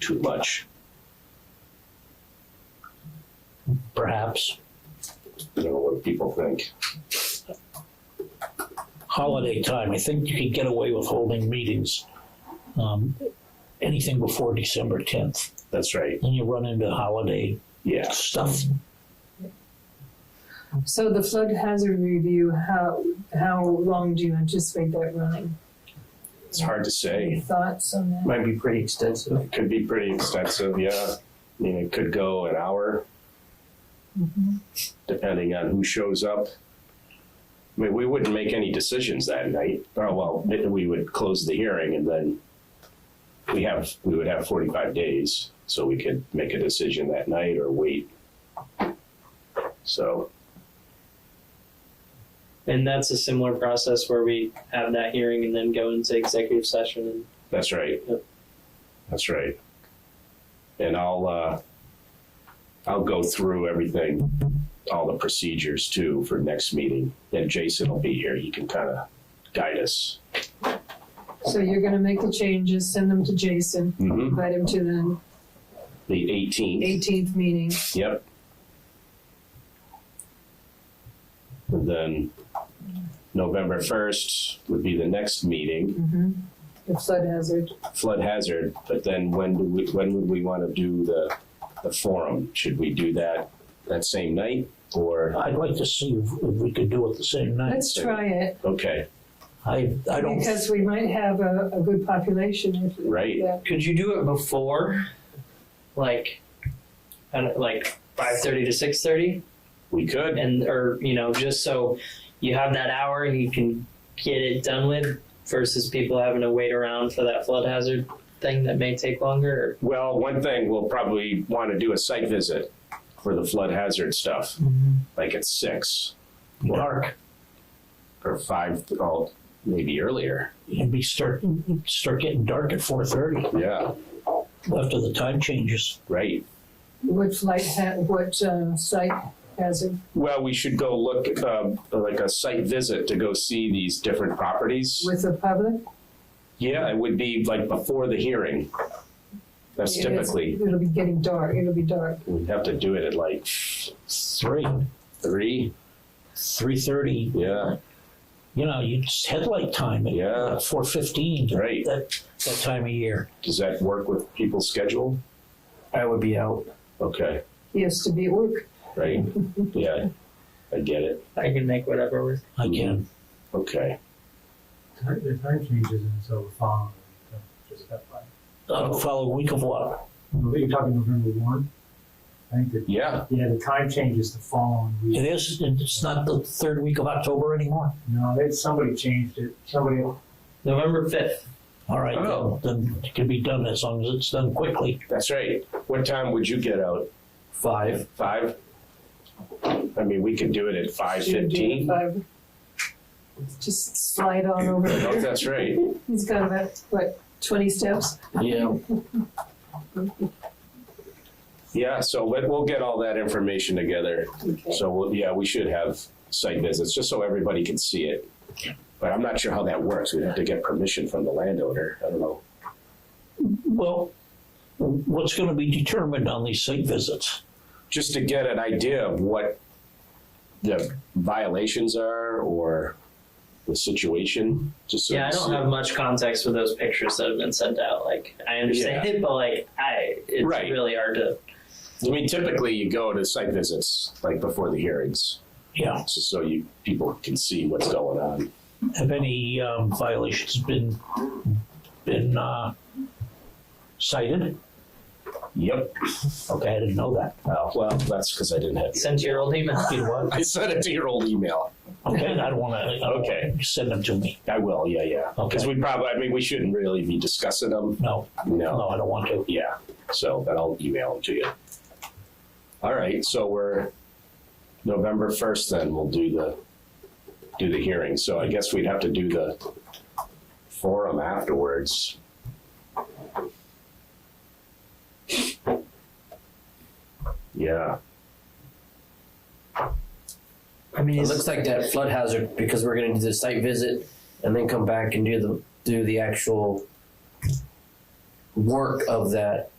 too much. perhaps. I don't know what people think. Holiday time, I think you could get away with holding meetings, um, anything before December tenth. That's right. Then you run into holiday Yeah. stuff. So the flood hazard review, how, how long do you anticipate that running? It's hard to say. Any thoughts on that? Might be pretty extensive. It could be pretty extensive. Yeah. I mean, it could go an hour Mhm. depending on who shows up. I mean, we wouldn't make any decisions that night. Oh, well, we would close the hearing and then we have, we would have forty-five days, so we could make a decision that night or wait. So, And that's a similar process where we have that hearing and then go into executive session and that's right. Yep. That's right. And I'll, uh, I'll go through everything, all the procedures too for next meeting. And Jason will be here. He can kind of guide us. So you're gonna make the changes, send them to Jason, Mhm. invite him to the The eighteenth. eighteenth meeting. Yep. And then November first would be the next meeting, Mhm. The flood hazard, flood hazard, but then when do we, when would we wanna do the, the forum? Should we do that that same night or, I'd like to see if, if we could do it the same night. let's try it, okay, I, I don't, because we might have a, a good population if. Right. that- Could you do it before, like, I don't, like five thirty to six thirty, we could, and or you know just so you have that hour and you can get it done with, versus people having to wait around for that flood hazard thing that may take longer. well, one thing, we'll probably wanna do a site visit for the flood hazard stuff, Or, Mm-hmm. like at six dark, or five, oh, maybe earlier, it'd be start, start getting dark at four thirty yeah, after the time changes. right. What flight ha, what, uh, site hazard, Well, we should go look, um, like a site visit to go see these different properties. with the public? Yeah, it would be like before the hearing. That's It is- typically, It'll be getting dark, it'll be dark. we'd have to do it at like Three, three, three thirty, yeah, you know, you just headlight time Yeah. at four fifteen. Right. That, that time of year. does that work with people's schedule? I would be out. Okay, He has to be at work. right, yeah, I get it, I can make whatever work. I can, okay, Time- The time changes and so the following, so just that fine. uh, follow week of what? Are you talking November one? I think that, yeah, yeah, the time changes the following It week. is, it's not the third week of October anymore. No, they, somebody changed it, somebody, November fifth. All right, Oh. then, then it can be done as long as it's done quickly. that's right. What time would you get out? Five. Five? I mean, we could do it at five Should we do it fifteen. five? Just slide on over No, there. that's right, He's got about, what, twenty steps? Yeah. yeah, so but we'll get all that information together. Okay. So, we'll- yeah, we should have site visits, just so everybody can see it. But I'm not sure how that works. We'd have to get permission from the landowner. I don't know. Well, what's gonna be determined on these site visits? Just to get an idea of what the violations are or the situation, just so. Yeah, I don't have much context with those pictures that have been sent out. Like I understand it, but like I, it's Right. really hard to. I mean, typically you go to site visits, like before the hearings, Yeah, just so you, people can see what's going on. have any um, violations been, been uh, cited? Yep. Okay, I didn't know that. Oh, Well, that's because I didn't have you. Send to your old email. You know what? I sent it to your old email. Okay, I don't wanna, I don't Okay. wanna send them to me, I will, yeah, yeah. Because we probably, I mean, we shouldn't really be discussing them. no, no, I don't want to. Oh, Yeah, so, but I'll email them to you. All right, so we're, November first then, we'll do the, do the hearing, so I guess we'd have to do the forum afterwards. Yeah, I mean, It looks like that flood hazard because we're gonna do the site visit and then come back and do the do the actual work of that